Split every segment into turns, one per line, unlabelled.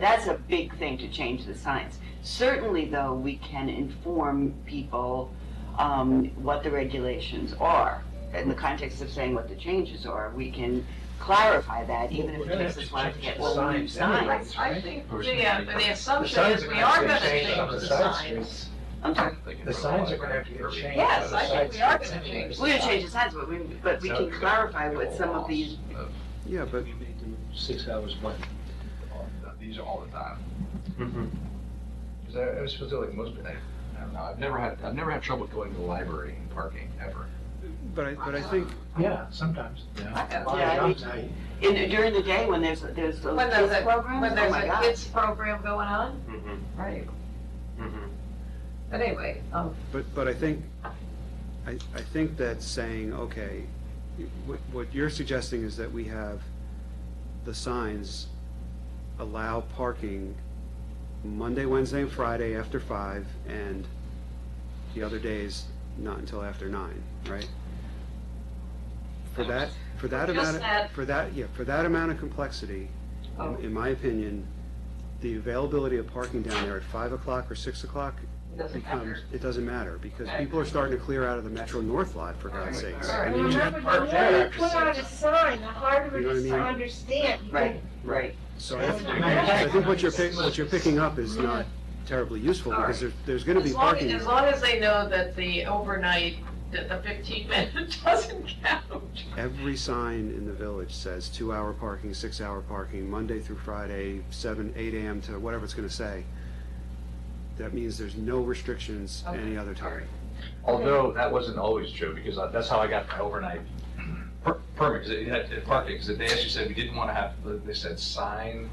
That's a big thing to change the signs. Certainly, though, we can inform people um, what the regulations are. In the context of saying what the changes are, we can clarify that, even if
We're
it
gonna
takes
have
us
to
a while to
change
get
the
all new
signs anyway.
signs.
I
right?
think,
Personally,
yeah, but the
but-
assumption is we are gonna change the signs.
I'm sorry,
The signs are gonna have to get changed.
Yes, I think we are gonna
Signs-
change.
we're gonna change the signs, but we, but we can clarify what some of these,
Yeah, but
Six hours, but,
These are all the time.
Mhm.
Because I, I was supposed to like most, I, I don't know, I've never had, I've never had trouble going to the library and parking ever.
but I, but I think
yeah, sometimes.
Yeah,
Well,
I
I'm
think-
tight.
in, during the day when there's, there's those
When there's
kids
a,
programs,
when
oh
there's
my
a
God.
kids program going on,
Mhm,
right, Mm-hmm.
mhm.
but anyway, um,
But, but I think, I, I think that's saying, okay, what, what you're suggesting is that we have the signs allow parking Monday, Wednesday, and Friday after five, and the other days not until after nine, right? For that, for that
Just
amount, of-
that-
for that, yeah, for that amount of complexity, in-
Oh.
in my opinion, the availability of parking down there at five o'clock or six o'clock
it doesn't
becomes,
matter.
it doesn't matter, because people are starting to clear out of the Metro North lot, for God's sakes. I
And
mean,
remember, the
Park
more
there
you put
after
on a sign, the harder it
You know
is
what
to
I mean?
understand. You
Right, right.
So I I think what you're, pick- what you're picking up is not terribly useful, because there, there's gonna be
As long,
parking.
as long as they know that the overnight, that the fifteen minute doesn't count.
Every sign in the village says two-hour parking, six-hour parking, Monday through Friday, seven, eight AM to whatever it's gonna say. That means there's no restrictions any other time.
Although that wasn't always true, because I- that's how I got my overnight per- permit, because it had, it parking, because they actually said we didn't want to have, they said sign,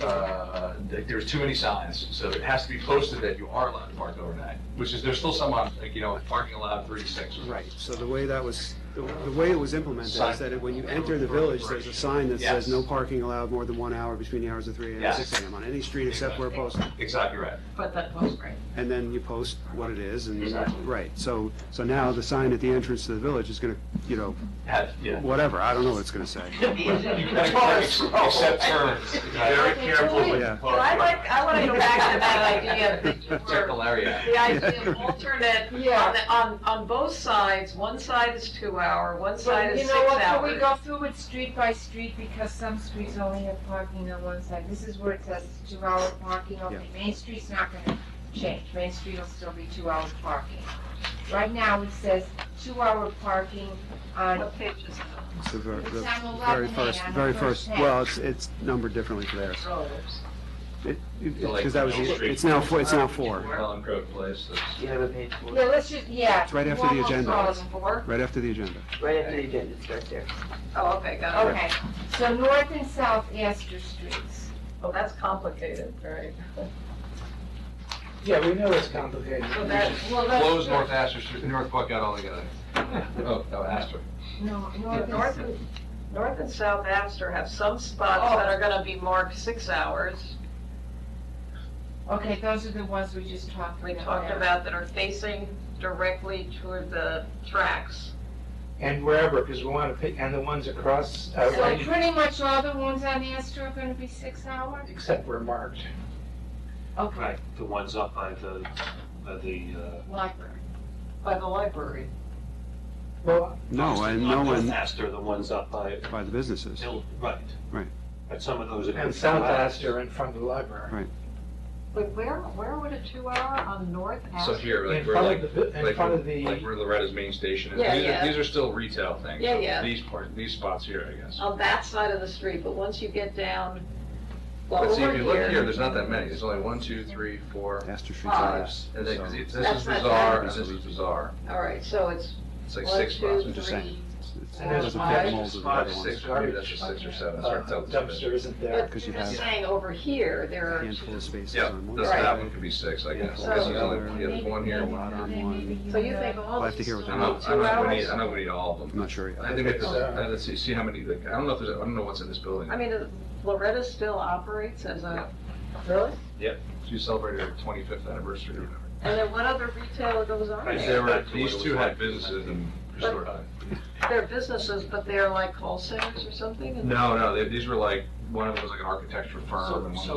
uh, that there was too many signs, so it has to be posted that you are allowed to park overnight, which is, there's still some on, like, you know, parking allowed thirty-six.
Right, so the way that was, the the way it was implemented is that it- when you enter the village, there's a sign that says no parking allowed more than one hour between the hours of three AM and six AM on any street except where posted.
Exactly right.
But that was great.
And then you post what it is and,
Exactly.
right, so, so now the sign at the entrance to the village is gonna, you know,
Had, yeah.
whatever, I don't know what it's gonna say.
You gotta ex- Accept terms. Very
careful with-
Yeah.
But I like, uh, I wanna go back to that idea that you were
Circle area.
The idea of alternate,
Yeah.
on, the- on, on both sides, one side is two hour, one side
But
is
you
six
know what, can we go
hours.
through it street by street, because some streets only have parking on one side, this is where it says two hour parking, okay, Main Street's not gonna change, Main Street will still be two hour parking. Right now, it says two hour parking on,
What page is that?
It's the ver- the
It's on
very
11A,
first,
on the
very
first
first,
page.
well, it's, it's numbered differently for theirs.
Rollers.
Because that was, the- it's now, four- it's now four,
Helen Code Place, that's-
You have a page for
yeah,
it,
let's just, yeah.
It's right after
we're
the
almost
agenda.
all in four.
right after the agenda.
right after the agenda, it's right there.
Oh, okay, got it.
Okay, so north and south Astor Streets.
Well, that's complicated, right?
Yeah, we know it's complicated.
So that,
Well, that's-
Close North Astor, Street- North Buck out altogether. Oh, no, Astor.
No, north and
north and, north and south Astor have some spots that are gonna be marked six hours.
Okay, those are the ones we just talked about.
We talked about that are facing directly toward the tracks.
And wherever, because we want to pick, and the ones across, uh,
So pretty much all the ones on Astor are gonna be six hour?
except were marked.
Okay,
Right, the ones up by the, by the, uh.
library.
By the library.
Well,
No, and no
Not
one
Faster, the ones up by,
by the businesses.
Hill- right.
Right.
But some of those are.
and South Astor in front of the library.
But where, where would a two hour on north
So
Astor?
here,
In
like, we're
front
like,
of the, bu- in
like,
front of the.
like where Loretta's main station is.
Yeah,
These are-
yeah.
These are still retail things.
Yeah, yeah. Oh,
These part, these spots here, I guess.
on that side of the street, but once you get down, well,
But see,
over
if you look here,
here,
there's not that many. There's only one, two, three, four,
Astor Street's
five,
on
s- and then, 'cause it- this
That's
is
not
bizarre,
bad.
and this is bizarre.
all right, so it's
It's like
one,
six spots.
two,
just
three.
saying. It's-
And there's
it's a
five
big mold of the
Five,
other ones.
six, or maybe that's just six or seven. Sorry,
uh,
tell the
Dumpster isn't there.
But
Because
you're
you
just
have-
saying over here, there are
handful
two.
of spaces
Yeah,
on one
this,
Right.
that
side.
one could be six, I guess.
Yeah.
This is only, yeah, there's
Maybe-
one here,
maybe
one.
one
you
on
know,
one.
maybe
So you
know.
think
I'll
all
have to
these
hear
two
what
I don't know, I don't know, if we need- I
hours?
don't know if we need all of them.
I'm not sure yet.
I think it's, uh, let's see, see how many, like, I don't know if there's, I don't know what's in this building.
I mean, is- Loretta still operates as a, really?
She celebrated her twenty-fifth anniversary or whatever.
And then what other retailer goes on
Right.
there?
There were, these two had businesses in
But-
Crystal Rock.
they're businesses, but they're like call centers or something? and-
No, no, they- these were like, one of them was like an architecture firm and one
So-
was